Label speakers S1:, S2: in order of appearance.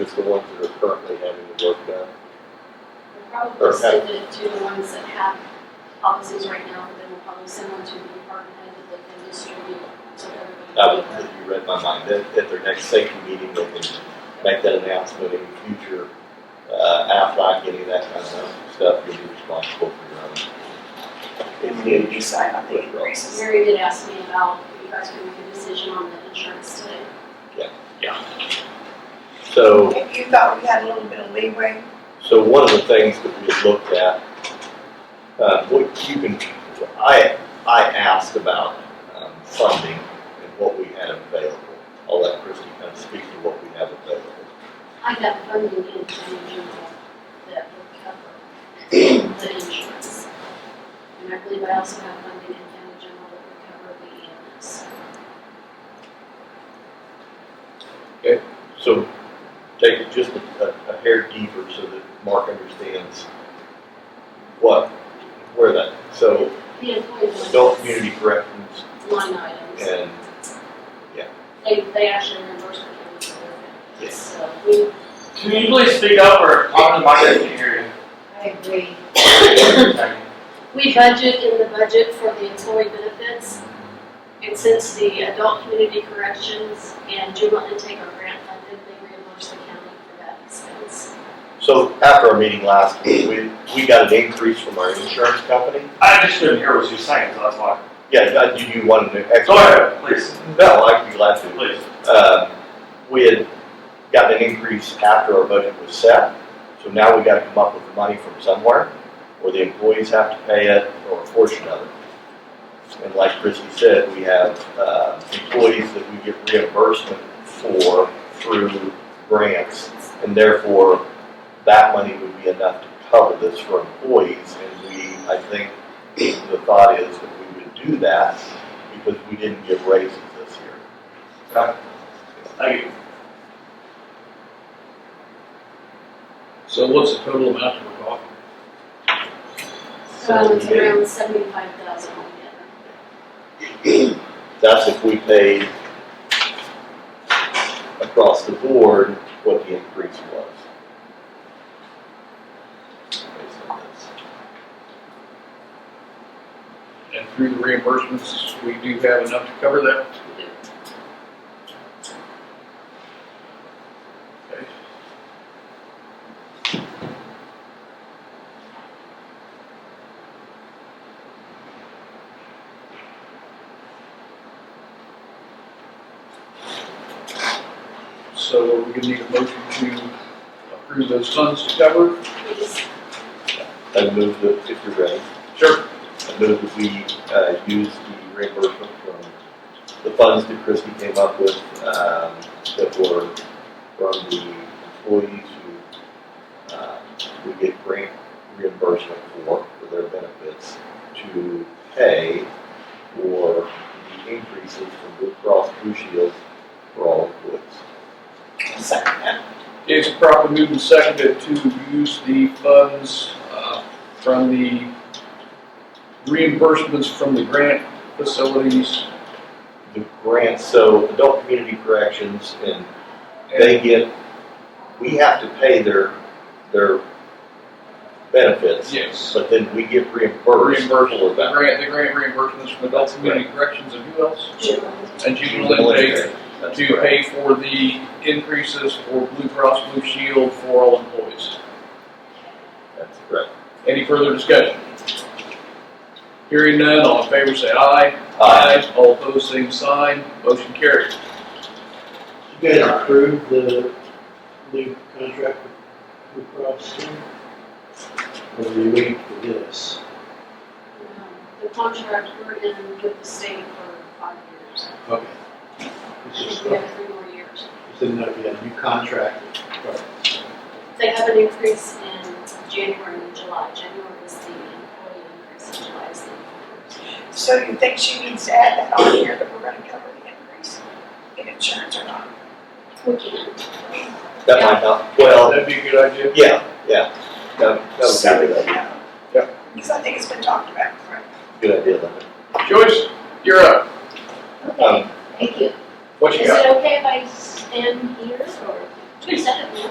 S1: Just the ones that are currently having the work done?
S2: We'll probably
S1: Okay.
S2: send it to the ones that have offices right now, but then we'll probably send one to the department head that they can distribute to
S1: I would,
S2: everybody.
S1: if you read my mind, at, at their next safety meeting, they can make that announcement in future, uh, Aflac, any of that kind of stuff, you'll be responsible for your own.
S3: And we need to decide on the increases.
S2: Mary did ask me about if you guys could make a decision on the insurance today.
S1: So,
S3: If you thought we had a little bit of leeway,
S1: so one of the things that we looked at, uh, what you can, I, I asked about, um, funding and what we had available. I'll let Christie kind of speak to what we have available.
S2: I got funding in the general that would cover the insurance. And I believe I also have funding in county general that would cover the E EMS.
S1: So take it just a, a hair deeper so that Mark understands what, where that, so
S2: The
S1: adult
S2: employee
S1: community corrections
S2: benefits line items,
S1: and,
S2: they, they actually reimburse the county for their benefits.
S1: Yes.
S2: So we,
S4: Can you please speak up or talk to the mic if you hear
S2: I agree.
S4: you?
S2: We budget in the budget for the employee benefits. And since the adult community corrections and juvenile intake are grant funded, they reimburse the county for that expense.
S1: so after our meeting last week, we, we got an increase from our insurance company.
S4: I just couldn't hear what you were saying, so that's why.
S1: Yeah, uh, do you want to?
S4: Go ahead, please,
S1: No, I'd be glad to.
S4: please.
S1: Um, we had gotten an increase after our budget was set, so now we gotta come up with the money from somewhere, or the employees have to pay it, or a portion of it. And like Christie said, we have, uh, employees that we get reimbursement for through grants, and therefore, that money would be enough to cover this for employees, and we, I think, the thought is that we would do that, because we didn't give raises this year.
S4: Thank you.
S5: So what's the total amount that we're talking?
S2: So it's Um, around seventy-five thousand altogether.
S1: That's if we paid across the board what the increase was. Based on this.
S5: And through the reimbursements, we do have enough to cover that? Okay. So we need a motion to approve those funds to cover?
S2: We just,
S1: I move that, if you're ready,
S5: Sure.
S1: I move that we, uh, use the reimbursement from the funds that Christie came up with, um, that were from the employees who, uh, we get grant reimbursement for, for their benefits, to pay for the increases from Blue Cross Blue Shield for all employees.
S3: second that.
S5: It's properly moved and seconded to use the funds uh, from the reimbursements from the grant facilities.
S1: The grants, so adult community corrections and
S5: and
S1: they get, we have to pay their, their benefits,
S5: Yes.
S1: but then we get reimbursed for
S5: Reimbursed, the
S1: that.
S5: grant, the grant reimbursements from adult community corrections and who else?
S2: general.
S5: And juvenile intake to pay for the increases for Blue Cross Blue Shield for all employees.
S2: Um,
S1: That's correct.
S5: Any further discussion? Hearing none, all in favor say aye.
S1: Uh,
S5: All opposed, same sign. Motion carries.
S6: You guys approved the new contract with Blue Cross Blue? Or were you waiting for this?
S2: Um, The contract we're in with the state for five years.
S6: Okay. It's just,
S2: We have three more years.
S6: it's enough, you got a new contract.
S2: They have an increase in January and July. January is the employee increase, and July is the employer's.
S3: So you think she needs to add that on here that we're gonna cover the increase in insurance or not?
S2: We can.
S1: that might not, well,
S5: That'd be a good idea.
S1: yeah, yeah. That, that was
S3: So
S1: a
S3: we
S1: good idea.
S3: know.
S5: Yeah.
S3: Because I think it's been talked about before.
S1: Good idea, Linda.
S5: Joyce, you're up.
S1: Um,
S7: Thank you.
S5: What you
S7: Is
S5: got?
S7: it okay if I stand here or? Is that okay?